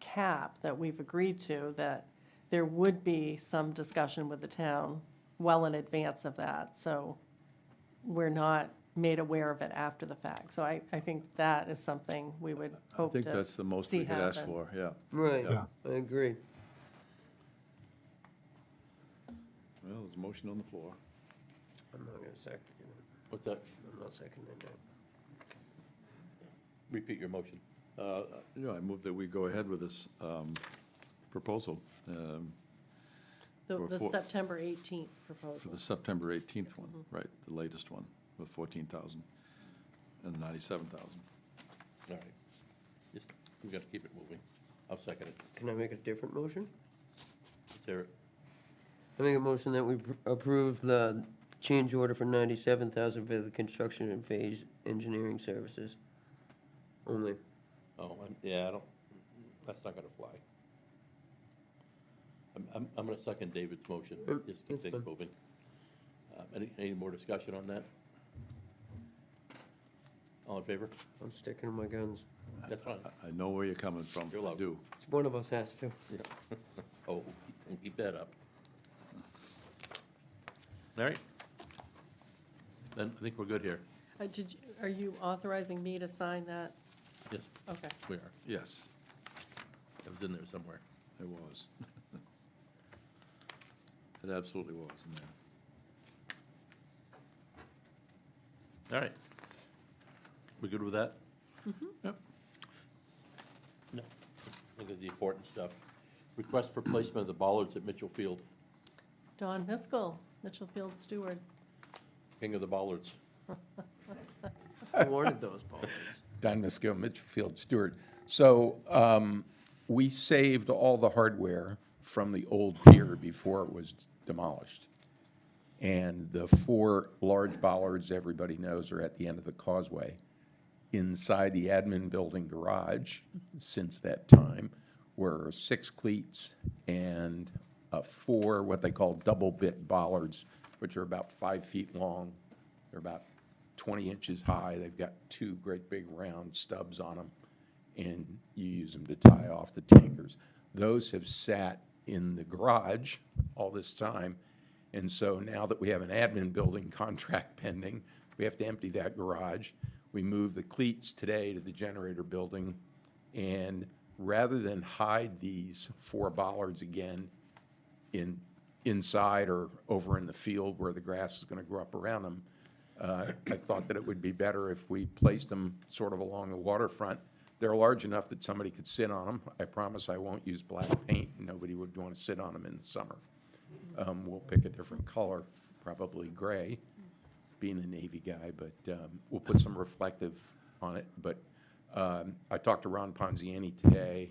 cap that we've agreed to, that there would be some discussion with the town well in advance of that, so we're not made aware of it after the fact. So I, I think that is something we would I hope to. think that's the most we see could ask happen. for, yeah. Right, Yeah. I agree. Well, there's a motion on the floor. I'm not gonna second it. What's that? I'm not seconding that. Repeat your motion. Yeah, I move that we go ahead with this um, proposal um, The, or the for- September 18th for proposal. the September 18th one, Mm-hmm. right, the latest one, with 14,000 and 97,000. All right. Just, we got to keep it moving. I'll second it. Can I make a different motion? Let's hear it. I make a motion that we pr- approve the change order for ninety-seven thousand for the construction and phase engineering services. Only. Oh, I'm, yeah, I don't, that's not going to fly. I'm, I'm, I'm going to second David's motion. Mm, Just keep that's things fine. moving. Uh, Any, any more discussion on that? All in favor? I'm sticking to my guns. That's fine. I know where you're coming from. You're I allowed. do. It's one of us has to. Oh, and keep that up. All right. Then I think we're good here. Uh, did, you- are you authorizing me to sign that? Yes, Okay. we are. Yes, It was in there somewhere. it was. It absolutely was in there. All right. We good with that? Yep. No. Look at the important stuff. Request for placement of the bollards at Mitchell Field, Don Miskel, Mitchell Field Steward. King of the Bollards. I wanted those balls. Don Miskel, Mitchfield Stewart. So um, we saved all the hardware from the old pier before it was demolished. And the four large bollards everybody knows are at the end of the causeway. Inside the admin building garage, since that time, were six cleats and uh, four what they call double bit bollards, which are about five feet long. They're about 20 inches high. They've got two great big round stubs on them, and you use them to tie off the tankers. Those have sat in the garage all this time, and so now that we have an admin building contract pending, we have to empty that garage. We move the cleats today to the generator building, and rather than hide these four bollards again in, inside or over in the field where the grass is going to grow up around them, uh, I thought that it would be better if we placed them sort of along the waterfront. They're large enough that somebody could sit on them. I promise I won't use black paint. Nobody would want to sit on them in the summer. Um, We'll pick a different color, probably gray, being a navy guy, but um, we'll put some reflective on it. But um, I talked to Ron Ponziani today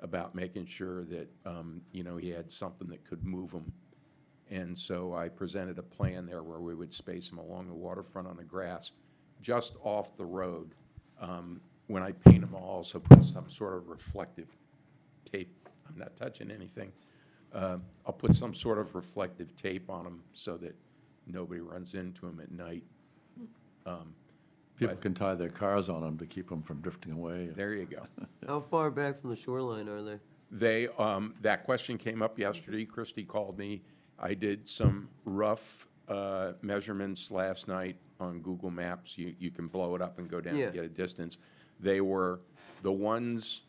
about making sure that, um, you know, he had something that could move them. And so I presented a plan there where we would space them along the waterfront on the grass, just off the road. Um, When I paint them, I'll also put some sort of reflective tape, I'm not touching anything. Um, I'll put some sort of reflective tape on them so that nobody runs into them at night. People can tie their cars on them to keep them from drifting away. There you go. How far back from the shoreline are they? They, um, that question came up yesterday. Christie called me. I did some rough, uh, measurements last night on Google Maps. You, you can blow it up and go down Yeah. and get a distance. They were the ones,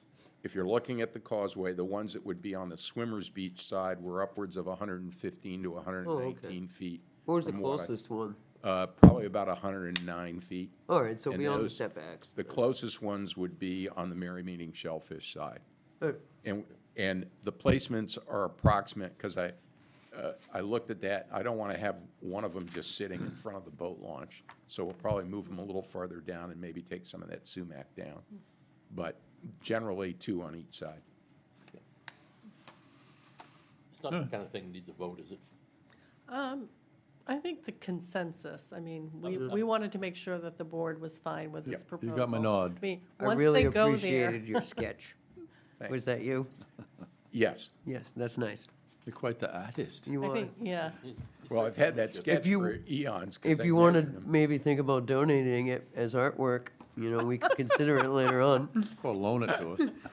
if you're looking at the causeway, the ones that would be on the swimmer's beach side were upwards of hundred and fifteen to hundred Oh, and nineteen feet. Where's the from what I- closest one? Uh, probably about hundred and nine feet. All right, so And beyond the those- setbacks. The closest ones would be on the Merry Meeting Shellfish side. Uh, And, and the placements are approximate, because I, uh, I looked at that, I don't want to have one of them just sitting in front of the boat launch. So we'll probably move them a little farther down and maybe take some of that sumac down. But generally, two on each side. It's not the kind of thing that needs a vote, is it? I think the consensus, I mean, we, we wanted to make sure that the board was fine with this You proposal. got my nod. I mean, I once really they go there, appreciated your sketch. Thanks. Was that you? Yes, Yes, that's nice. You're quite the artist. You I are. think, yeah, well, I've had that sketch you- for eons. 'cause If I you want to measured 'em. maybe think about donating it as artwork, you know, we could consider it later on. Or loan it to us.